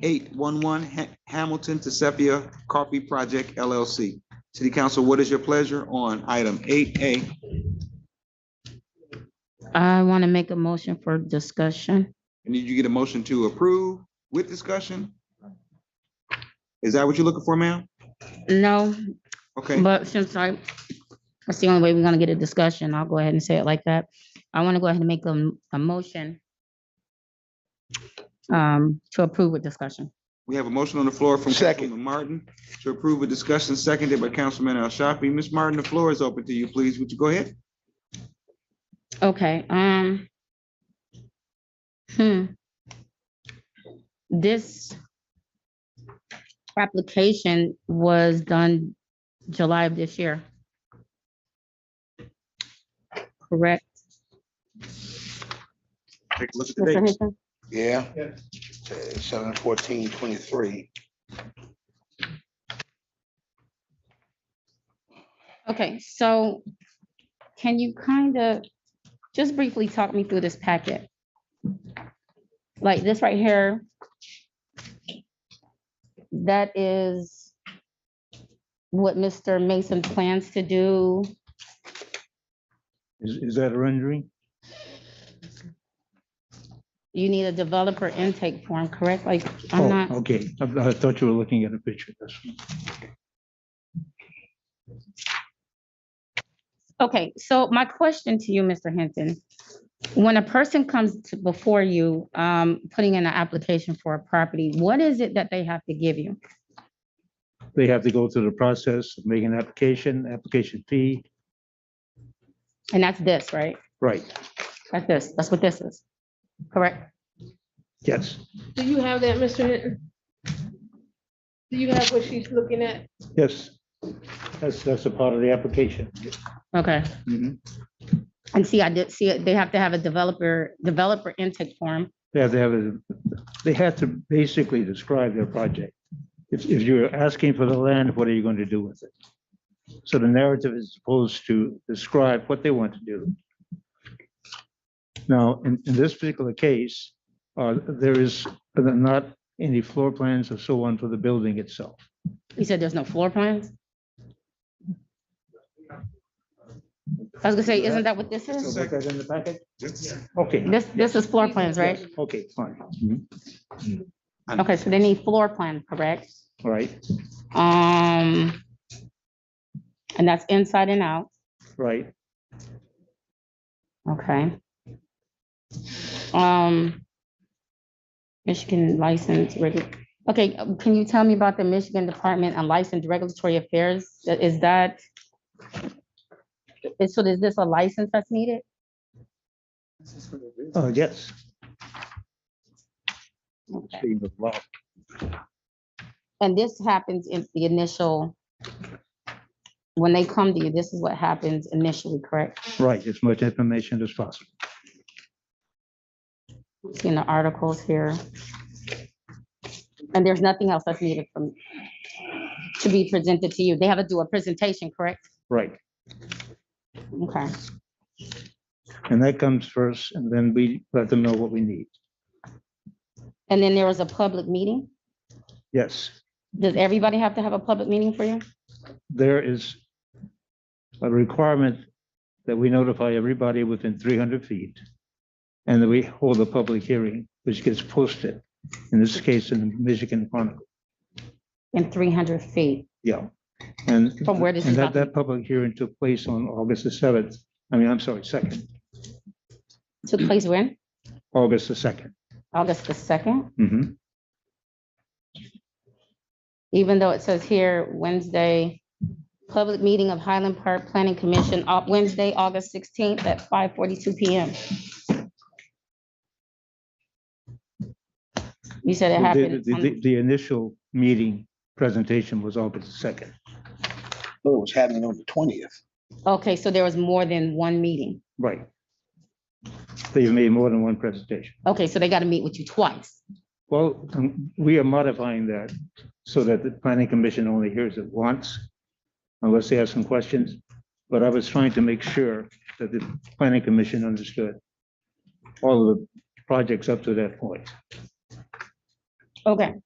eight one one Hamilton to Sepia Coffee Project LLC. City Council, what is your pleasure on item eight A? I want to make a motion for discussion. And did you get a motion to approve with discussion? Is that what you're looking for, ma'am? No, Okay, but since I, that's the only way we're gonna get a discussion. I'll go ahead and say it like that. I want to go ahead and make a, m- a motion um, to approve with discussion. we have a motion on the floor from Second. Councilman Martin to approve a discussion seconded by Councilman Al Shafi. Ms. Martin, the floor is open to you, please. Would you go ahead? Okay, um. Hmm. This application was done July of this year. Correct? Take a look at the Mr. dates. Hinton? Yeah. Uh, Seven fourteen twenty-three. Okay, so can you kind of just briefly talk me through this packet? Like this right here. That is what Mr. Mason plans to do. Is, is that a rendering? You need a developer intake form, correct? Like, I'm Oh, not, okay. I, I thought you were looking at a picture. That's, okay, so my question to you, Mr. Hinton. When a person comes to- before you, um, putting in an application for a property, what is it that they have to give you? they have to go through the process, of making an application, application fee. And that's this, right? Right, That's this, that's what this is, correct? yes, Do you have that, Mr. Hinton? Do you have what she's looking at? yes. That's, that's a part of the application. Okay, Mhm. and see, I did see it, they have to have a developer, developer intake form. They have to have, a. they have to basically describe their project. If, if you're asking for the land, what are you going to do with it? So the narrative is supposed to describe what they want to do. Now, in, in this particular case, uh, there is not any floor plans or so on for the building itself. You said there's no floor plans? I was gonna say, isn't that what this is? So was that in the packet? Just- Okay. This, this is floor plans, right? Yes, Okay, fine. Okay, so they need floor plan, correct? All right, Um, and that's inside and out, right. okay? Um, Michigan license, regu- okay, um, can you tell me about the Michigan Department on License Regulatory Affairs? Is that? is- So is this a license that's needed? Oh, yes. Okay. Speaking of law, And this happens in the initial, when they come to you, this is what happens initially, correct? Right, as much information as possible. Seeing the articles here. And there's nothing else that's needed from, to be presented to you. They have to do a presentation, correct? Right. Okay, And that comes first, and then we let them know what we need. and then there is a public meeting. Yes, Does everybody have to have a public meeting for you? there is a requirement that we notify everybody within 300 feet, and that we hold a public hearing, which gets posted, in this case, in the Michigan Chronicle. In three hundred feet? Yeah. And From where this and is that, happening. that public hearing took place on August the 7th, I mean, I'm sorry, 2nd, Took place when? August the 2nd. August the second? Mhm. even though it says here Wednesday, public meeting of Highland Park Planning Commission, uh, Wednesday, August sixteenth at five forty-two PM. You said it The- happened, The, the- on- the initial meeting presentation was August the 2nd. Well, Oh, it was happening on the twentieth. okay, so there was more than one meeting. Right. They've made more than one presentation. Okay, so they got to meet with you twice. Well, um, we are modifying that so that the planning commission only hears it once, unless they have some questions. But I was trying to make sure that the planning commission understood all of the projects up to that point. Okay,